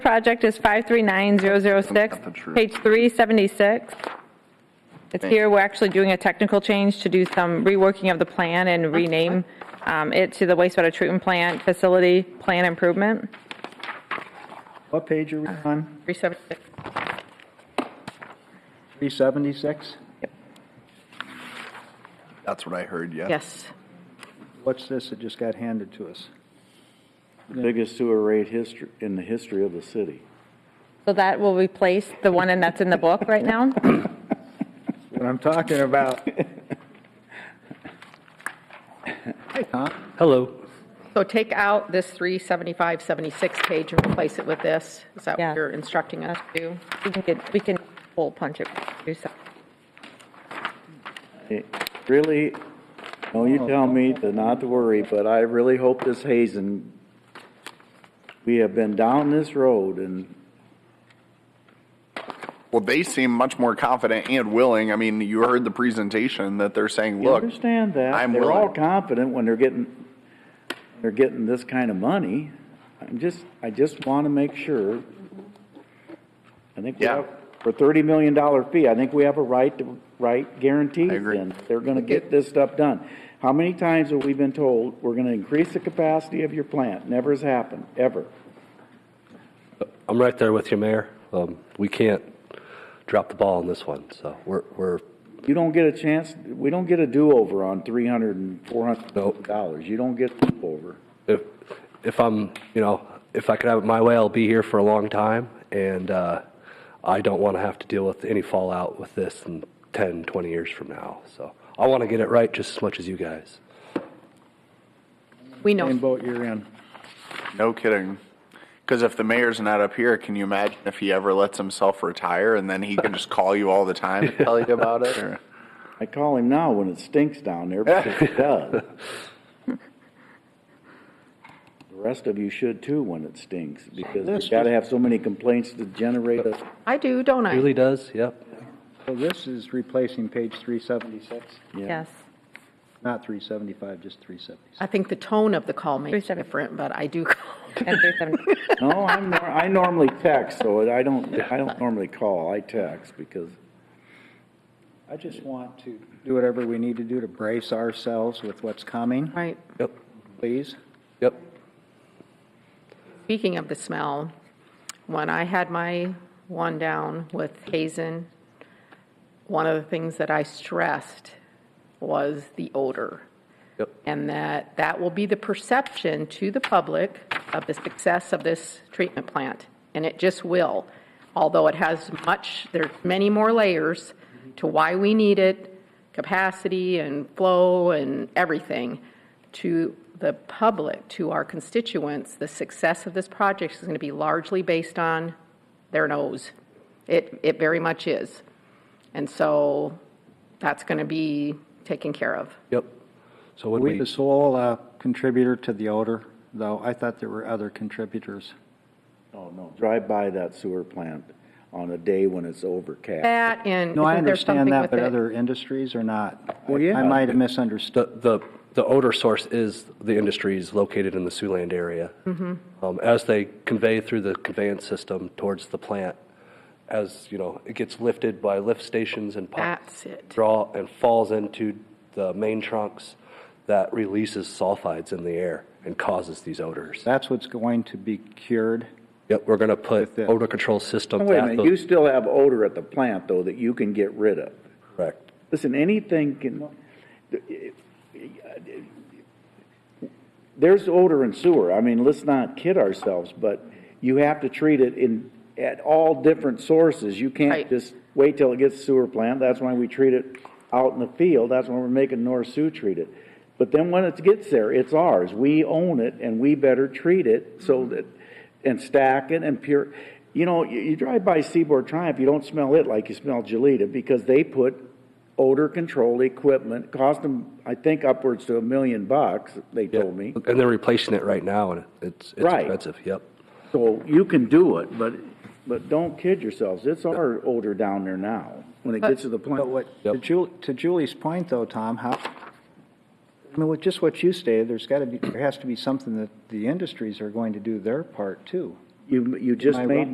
project is 539006, page 376. It's Thank you. here, we're actually doing a technical change to do some reworking of the plan and rename um, it to the wastewater treatment plant facility plan improvement. What page Uh, are we on? 376. 376? That's what I heard, yeah. Yes. What's this that just got handed to us? Biggest sewer rate history, in the history of the city. So that will replace the one and that's in the book right now? What I'm talking about. Hello. So take out this 375, 76 page and replace it with this? Is that Yeah. what you're instructing us to do? We can get, we can hole punch it. do some- It- Really, no, you tell me to not to worry, but I really hope this hazing, we have been down this road and Well, they seem much more confident and willing. I mean, you heard the presentation that they're saying, you look, understand that. I'm They're all willing. confident when they're getting, they're getting this kind of money. I'm just, I just want to make sure. I think we Yeah. have, for thirty million dollar fee, I think we have a right to, right guarantee. I agree. then. They're gonna get this stuff done. How many times have we been told, we're gonna increase the capacity of your plant? Never has happened, ever. I'm right there with you, Mayor. Um, We can't drop the ball on this one, so we're, we're, You don't get a chance, we don't get a do-over on three hundred and four hundred dollars. You don't get a do-over. if, if I'm, you know, if I could have it my way, I'll be here for a long time, and uh, I don't want to have to deal with any fallout with this in 10, 20 years from now. So I want to get it right just as much as you guys. We Same know, boat you're in. no kidding. Because if the mayor's not up here, can you imagine if he ever lets himself retire and then he can just call you all the time and tell you about it? Or- I call him now when it stinks down there, because it does. The rest of you should too when it stinks, because This you've got to have so many complaints to generate a, I do, don't I? Really does, yep. So this is replacing page 376, Yes. not 375, just 376. I think the tone of the call may be 370. different, but I do, And 370. no, I'm, nor- I normally text, so I don't, I don't normally call, I text, because I just want to do whatever we need to do to brace ourselves with what's coming, right? Yep, please. yep. Speaking of the smell, when I had my one down with Hazen, one of the things that I stressed was the odor. Yep. And that that will be the perception to the public of the success of this treatment plant. And it just will. Although it has much, there's many more layers to why we need it, capacity and flow and everything. To the public, to our constituents, the success of this project is going to be largely based on their nose. It, it very much is. And so that's going to be taken care of. Yep. So Are when we we, the sole uh, contributor to the odor, though? I thought there were other contributors. oh no, drive by that sewer plant on a day when it's overcast. That and. No, I isn't there understand something that, with but it? other industries are not. Well, yeah. I might have misunderstood. the, the, the odor source is the industries located in the Siouxland area. Mm-hmm. Um, as they convey through the conveyance system towards the plant, as, you know, it gets lifted by lift stations and pipes. That's it. Draw and falls into the main trunks that releases sulfides in the air and causes these odors. That's what's going to be cured. Yep, we're gonna put that. odor control systems. Oh, Wait a at minute, the- you still have odor at the plant, though, that you can get rid of. Correct. Listen, anything can, there's odor in sewer. I mean, let's not kid ourselves, but you have to treat it in, at all different sources. You can't Right. just wait till it gets to sewer plant. That's why we treat it out in the field. That's why we're making North Sioux treat it. But then when it gets there, it's ours. We own it and we better treat it so that, and stack it and pure. You know, you, you drive by Seaboard Triumph, you don't smell it like you smell Gelita because they put odor control equipment, cost them, I think upwards to a million bucks, they told me. And they're replacing it right now, and it's, it's Right. expensive, yep. So you can do it, but, but don't kid yourselves, it's our odor down there now, when it gets to the But plant. what, to Ju- to Julie's point though, Tom, how, I mean, with just what you stated, there's got to be, there has to be something that the industries are going to do their part too. You, you just Am I made wrong?